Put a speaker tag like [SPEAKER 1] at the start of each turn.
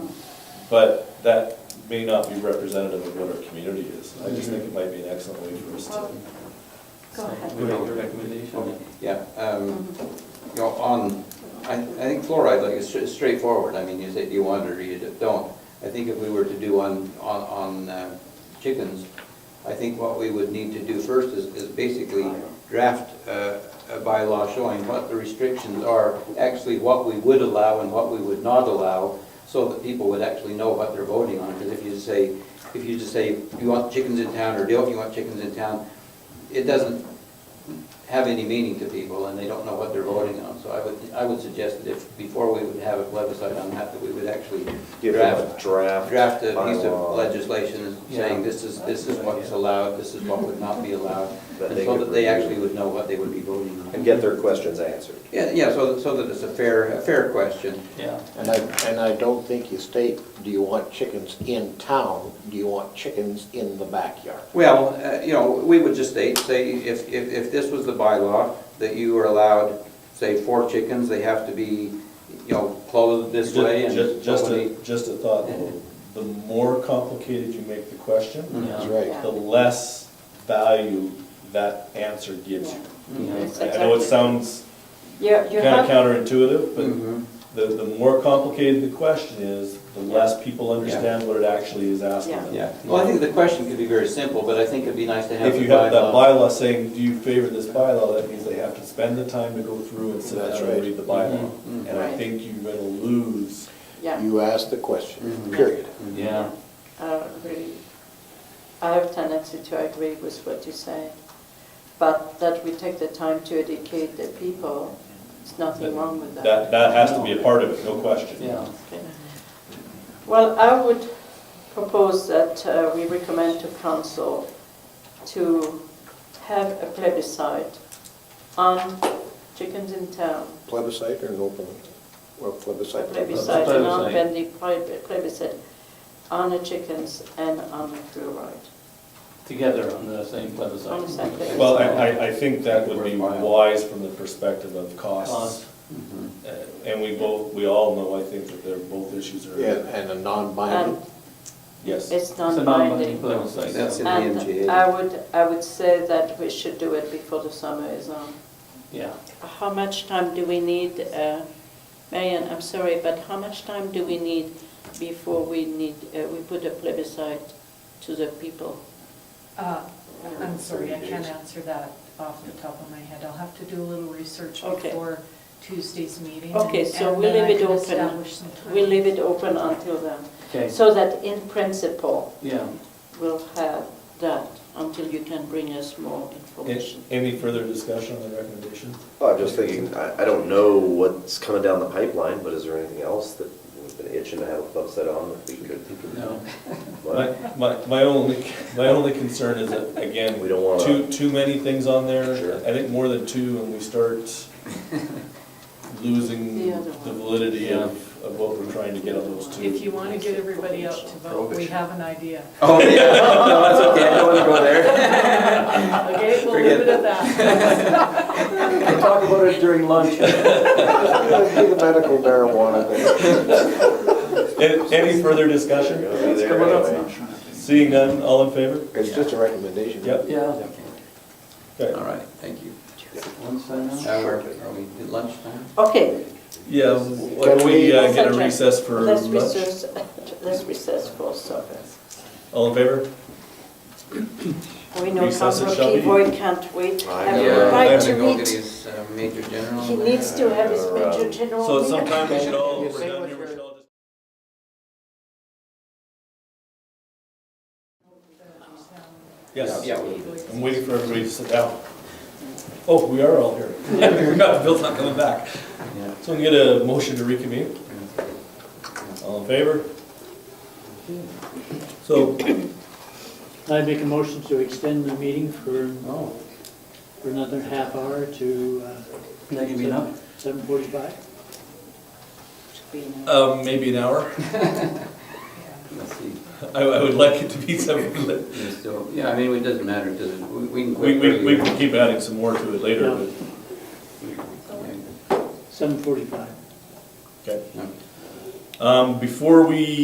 [SPEAKER 1] But that may not be representative of what our community is. I just think it might be an excellent way for us to.
[SPEAKER 2] Go ahead.
[SPEAKER 3] We make a recommendation.
[SPEAKER 4] Yeah, um,
[SPEAKER 2] Mhm.
[SPEAKER 4] you know, on, I, I think fluoride, like, is stra- straightforward, I mean, you say, do you want it or you don't. I think if we were to do on, on, on uh, chickens, I think what we would need to do first is, is basically draft uh, a bylaw showing what the restrictions are, actually what we would allow and what we would not allow, so that people would actually know what they're voting on, because if you say, if you just say, you want chickens in town, or don't you want chickens in town, it doesn't have any meaning to people, and they don't know what they're voting on. So I would, I would suggest that if, before we would have a plebiscite on that, that we would actually
[SPEAKER 5] Give them
[SPEAKER 4] draft,
[SPEAKER 5] a draft.
[SPEAKER 4] draft a piece
[SPEAKER 5] bylaw
[SPEAKER 4] of legislation saying this is, this is what's allowed, this is what would not be allowed,
[SPEAKER 5] That
[SPEAKER 4] and
[SPEAKER 5] they
[SPEAKER 4] so
[SPEAKER 5] could
[SPEAKER 4] that they
[SPEAKER 5] review.
[SPEAKER 4] actually would know what they would be voting on.
[SPEAKER 5] And get their questions answered.
[SPEAKER 4] Yeah, yeah, so, so that it's a fair, a fair question.
[SPEAKER 3] Yeah.
[SPEAKER 6] And I, and I don't think you state, do you want chickens in town? Do you want chickens in the backyard?
[SPEAKER 4] Well, uh, you know, we would just state, say, if, if, if this was the bylaw, that you were allowed, say, four chickens, they have to be, you know, clothed this
[SPEAKER 1] Ju-
[SPEAKER 4] way and.
[SPEAKER 1] ju- Just a,
[SPEAKER 4] nobody-
[SPEAKER 1] just a thought, though. the more complicated you make the question,
[SPEAKER 6] That's
[SPEAKER 3] Yeah.
[SPEAKER 6] right.
[SPEAKER 2] Yeah.
[SPEAKER 1] the less value that answer gives you.
[SPEAKER 3] Yeah.
[SPEAKER 2] That's
[SPEAKER 1] I know it
[SPEAKER 2] exactly-
[SPEAKER 1] sounds
[SPEAKER 2] You're, you're.
[SPEAKER 1] kind of
[SPEAKER 2] not-
[SPEAKER 1] counterintuitive, but
[SPEAKER 4] Mhm.
[SPEAKER 1] the, the more complicated the question is, the less people understand what it actually is asking
[SPEAKER 2] Yeah.
[SPEAKER 1] them.
[SPEAKER 4] Yeah, well, I think the question could be very simple, but I think it'd be nice to have.
[SPEAKER 1] If
[SPEAKER 4] the
[SPEAKER 1] you have that
[SPEAKER 4] bylaw.
[SPEAKER 1] bylaw saying, do you favor this bylaw, that means they have to spend the time to go through and sit
[SPEAKER 6] That's
[SPEAKER 1] down and
[SPEAKER 6] right.
[SPEAKER 1] read the bylaw.
[SPEAKER 4] Mhm, mhm.
[SPEAKER 1] And I
[SPEAKER 2] Right.
[SPEAKER 1] think you're gonna lose,
[SPEAKER 2] Yeah,
[SPEAKER 6] You asked the question,
[SPEAKER 4] Mhm.
[SPEAKER 6] period.
[SPEAKER 3] Yeah.
[SPEAKER 2] I agree. I have tendency to agree with what you say, but that we take the time to educate the people, there's nothing wrong with that.
[SPEAKER 1] that, that has to be a part of it, no question.
[SPEAKER 3] Yeah.
[SPEAKER 2] Okay. Well, I would propose that uh, we recommend to council to have a plebiscite on chickens in town.
[SPEAKER 6] Plebiscite or no plebiscite? Well,
[SPEAKER 2] A
[SPEAKER 6] plebiscite.
[SPEAKER 2] plebiscite, a
[SPEAKER 3] Plebiscite.
[SPEAKER 2] non-binding pleb- plebiscite on the chickens and on the fluoride.
[SPEAKER 3] Together on the same plebiscite.
[SPEAKER 2] On the same plebiscite.
[SPEAKER 1] Well, I, I, I think that would be
[SPEAKER 4] Worthwhile.
[SPEAKER 1] wise from the perspective of costs.
[SPEAKER 3] Cost.
[SPEAKER 4] Mhm.
[SPEAKER 1] Uh, And we both, we all know, I think, that they're, both issues
[SPEAKER 6] Yeah,
[SPEAKER 1] are,
[SPEAKER 6] and a
[SPEAKER 2] And
[SPEAKER 6] non-binding.
[SPEAKER 1] yes.
[SPEAKER 2] it's
[SPEAKER 3] It's a non-binding
[SPEAKER 2] non-binding.
[SPEAKER 3] plebiscite.
[SPEAKER 4] That's it.
[SPEAKER 2] And
[SPEAKER 4] MGA.
[SPEAKER 2] I would, I would say that we should do it before the summer is on.
[SPEAKER 3] Yeah.
[SPEAKER 2] How much time do we need, uh, Marian, I'm sorry, but how much time do we need before we need, uh, we put a plebiscite to the people?
[SPEAKER 7] Uh, I'm sorry, I can't answer that off the top of my head. I'll have to do a little research
[SPEAKER 2] Okay.
[SPEAKER 7] before Tuesday's meeting.
[SPEAKER 2] Okay,
[SPEAKER 7] and-
[SPEAKER 2] so
[SPEAKER 7] and
[SPEAKER 2] we
[SPEAKER 7] then I
[SPEAKER 2] leave it
[SPEAKER 7] can
[SPEAKER 2] open.
[SPEAKER 7] establish some time.
[SPEAKER 2] We leave it open until then,
[SPEAKER 3] Okay.
[SPEAKER 2] so that in principle,
[SPEAKER 3] Yeah.
[SPEAKER 2] we'll have that until you can bring us more
[SPEAKER 1] A-
[SPEAKER 2] information.
[SPEAKER 1] Any further discussion on the recommendation?
[SPEAKER 5] Well, I'm just thinking, I, I don't know what's coming down the pipeline, but is there anything else that we've been itching to have a upset on that we could?
[SPEAKER 3] No.
[SPEAKER 1] My, my, my only, my only concern is that, again,
[SPEAKER 5] We don't wanna-
[SPEAKER 1] too, too many things on there.
[SPEAKER 5] Sure.
[SPEAKER 1] I think more than two, and we start losing
[SPEAKER 2] The other
[SPEAKER 1] the
[SPEAKER 2] one.
[SPEAKER 1] validity of, of what we're trying to get on those two.
[SPEAKER 7] If you want to get everybody out to vote, we have an idea.
[SPEAKER 4] Oh, yeah, no, that's okay, I don't want to go there.
[SPEAKER 7] Okay, we'll
[SPEAKER 4] Forget
[SPEAKER 7] leave it at that.
[SPEAKER 3] We'll talk about it during lunch.
[SPEAKER 6] Be the medical marijuana thing.
[SPEAKER 1] Any, any further discussion?
[SPEAKER 5] We're gonna be there anyway.
[SPEAKER 1] Seeing none, all in favor?
[SPEAKER 6] It's just a recommendation.
[SPEAKER 1] Yep.
[SPEAKER 3] Yeah.
[SPEAKER 4] All
[SPEAKER 1] Okay.
[SPEAKER 4] right, thank you.
[SPEAKER 3] Lunch time now?
[SPEAKER 4] Now, we're- are we at lunchtime?
[SPEAKER 2] Okay,
[SPEAKER 1] Yeah, why don't
[SPEAKER 6] Can
[SPEAKER 1] we
[SPEAKER 6] we-
[SPEAKER 1] uh, get a recess for
[SPEAKER 2] let's
[SPEAKER 1] lunch?
[SPEAKER 2] recess, let's recess for supper.
[SPEAKER 1] All in favor?
[SPEAKER 2] We know
[SPEAKER 1] Recess it
[SPEAKER 2] Councilor
[SPEAKER 1] shall be.
[SPEAKER 2] Pivoy can't wait.
[SPEAKER 5] I
[SPEAKER 2] I
[SPEAKER 5] know.
[SPEAKER 2] would
[SPEAKER 4] I'm
[SPEAKER 2] like
[SPEAKER 4] gonna
[SPEAKER 2] to
[SPEAKER 4] go get
[SPEAKER 2] meet,
[SPEAKER 4] his uh, major general.
[SPEAKER 2] he needs to have his
[SPEAKER 5] Uh,
[SPEAKER 2] major general.
[SPEAKER 1] So
[SPEAKER 2] meeting.
[SPEAKER 1] sometime we should all,
[SPEAKER 6] You
[SPEAKER 1] we're
[SPEAKER 6] say
[SPEAKER 1] done
[SPEAKER 6] what
[SPEAKER 1] here, we
[SPEAKER 6] you're-
[SPEAKER 1] should all just. Yes.
[SPEAKER 4] Yeah, we-
[SPEAKER 1] I'm waiting for everybody to sit down. Oh, we are all here. We got Bill's not coming back.
[SPEAKER 4] yeah.
[SPEAKER 1] So we can get a motion to reconvene. All in favor? So,
[SPEAKER 8] I make a motion to extend the meeting for,
[SPEAKER 3] Oh,
[SPEAKER 8] for another half hour to uh,
[SPEAKER 3] can I give you enough?
[SPEAKER 8] seven forty-five.
[SPEAKER 1] um, maybe an hour.
[SPEAKER 4] Let's see.
[SPEAKER 1] I, I would like it to be something,
[SPEAKER 4] Yeah, So, yeah, I mean, it doesn't matter, it doesn't, we- we can
[SPEAKER 1] we, we,
[SPEAKER 4] quit
[SPEAKER 1] we
[SPEAKER 4] early.
[SPEAKER 1] can keep adding some more to it later,
[SPEAKER 8] Yeah.
[SPEAKER 1] but,
[SPEAKER 8] Seven forty-five.
[SPEAKER 1] okay.
[SPEAKER 4] Yeah.
[SPEAKER 1] Um, before we